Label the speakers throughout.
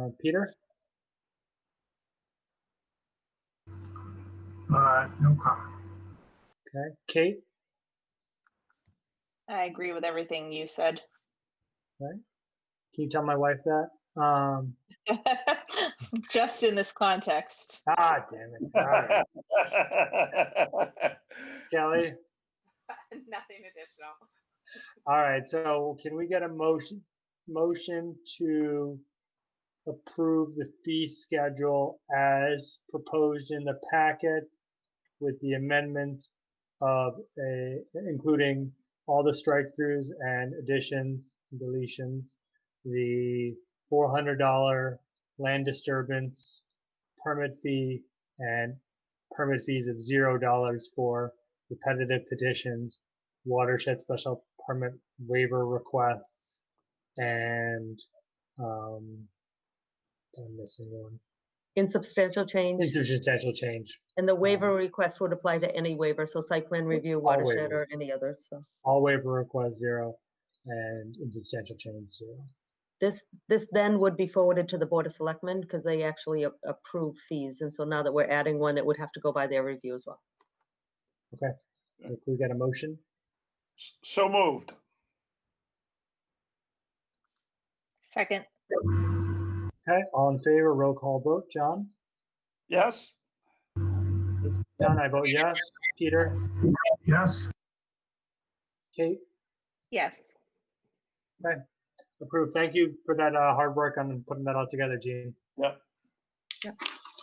Speaker 1: Uh, Peter?
Speaker 2: Uh, no comment.
Speaker 1: Okay. Kate?
Speaker 3: I agree with everything you said.
Speaker 1: Can you tell my wife that? Um,
Speaker 3: Just in this context.
Speaker 1: ah, damn it. All right. Kelly?
Speaker 4: Nothing additional.
Speaker 1: All right, so can we get a motion, motion to approve the fee schedule as proposed in the packet with the amendments of a, including all the strike-throughs and additions, and deletions, the four hundred dollar land disturbance permit fee and permit fees of zero dollars for repetitive petitions watershed special permit waiver requests and um I'm missing one.
Speaker 5: Insubstantial change,
Speaker 1: Insubstantial change.
Speaker 5: and the waiver request would apply to any waiver, so site plan review, watershed,
Speaker 1: waivers.
Speaker 5: or any others, so.
Speaker 1: All waiver requests zero and insubstantial change zero.
Speaker 5: This, this then would be forwarded to the Board of Selectmen, because they actually a- approve fees, and so now that we're adding one, it would have to go by their review as well.
Speaker 1: If we get a motion,
Speaker 6: S- So moved.
Speaker 3: Second,
Speaker 1: okay, all in favor, roll call vote. John?
Speaker 6: Yes?
Speaker 1: John, I vote yes. Peter?
Speaker 2: Yes,
Speaker 1: Kate?
Speaker 3: yes.
Speaker 1: Approved. Thank you for that uh, hard work on putting that all together, Gene.
Speaker 6: Yep.
Speaker 3: Yep.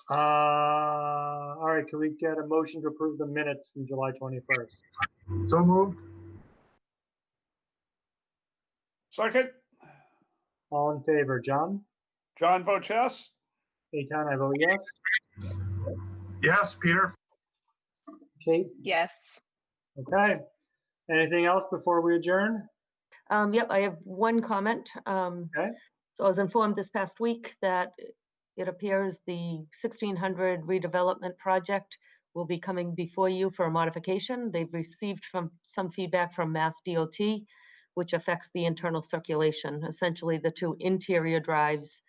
Speaker 1: Uh, all right, can we get a motion to approve the minutes from July twenty-first?
Speaker 2: so moved.
Speaker 6: Second?
Speaker 1: All in favor, John?
Speaker 6: John votes yes?
Speaker 1: Eitan, I vote yes.
Speaker 2: Yes, Peter.
Speaker 1: Kate,
Speaker 3: Yes.
Speaker 1: okay. Anything else before we adjourn?
Speaker 5: Um, yep, I have one comment. Um,
Speaker 1: Okay.
Speaker 5: so I was informed this past week that it appears the sixteen hundred redevelopment project will be coming before you for a modification. They've received from, some feedback from Mass DOT, which affects the internal circulation. Essentially, the two interior drives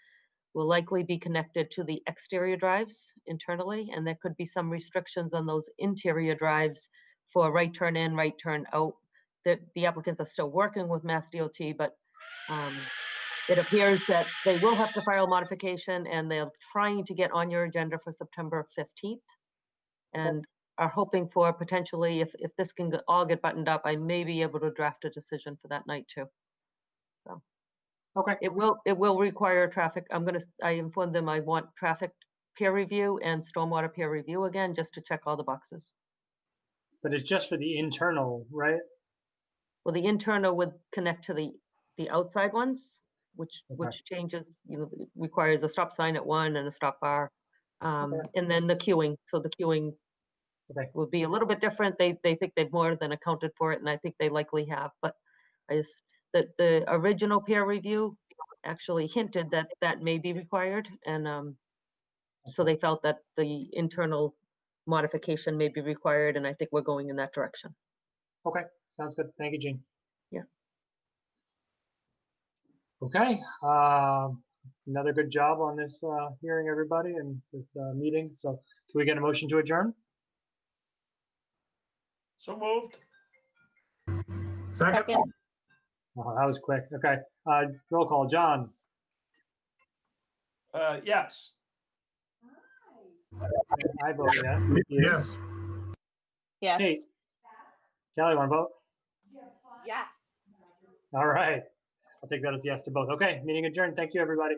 Speaker 5: will likely be connected to the exterior drives internally, and there could be some restrictions on those interior drives for right turn in, right turn out that the applicants are still working with Mass DOT, but um, it appears that they will have to file modification and they're trying to get on your agenda for September 15th. And are hoping for potentially, if, if this can get- all get buttoned up, I may be able to draft a decision for that night too. So.
Speaker 1: Okay.
Speaker 5: It will, it will require traffic. I'm gonna, s- I informed them I want traffic peer review and stormwater peer review again, just to check all the boxes.
Speaker 1: But it's just for the internal, right?
Speaker 5: Well, the internal would connect to the, the outside ones, which,
Speaker 1: Okay.
Speaker 5: which changes, you know, th- requires a stop sign at one and a stop bar. Um,
Speaker 1: Okay.
Speaker 5: and then the queuing, so the queuing
Speaker 1: Okay.
Speaker 5: will be a little bit different. They, they think they've more than accounted for it, and I think they likely have, but I just, the, the original peer review actually hinted that that may be required, and, um, so they felt that the internal modification may be required, and I think we're going in that direction.
Speaker 1: Okay, sounds good. Thank you, Gene.
Speaker 5: Yeah.
Speaker 1: Okay, um, another good job on this uh, hearing, everybody, and this uh, meeting. So can we get a motion to adjourn?
Speaker 6: So moved.
Speaker 2: Second,
Speaker 3: Second,
Speaker 1: Oh, that was quick. Okay, uh, roll call. John,
Speaker 6: Uh, yes.
Speaker 1: I vote yes. Peter?
Speaker 2: yes.
Speaker 3: yes.
Speaker 1: Kate? Kelly, want to vote?
Speaker 4: Yes.
Speaker 1: All right. I'll take that as yes to both. Okay, meeting adjourned. Thank you, everybody.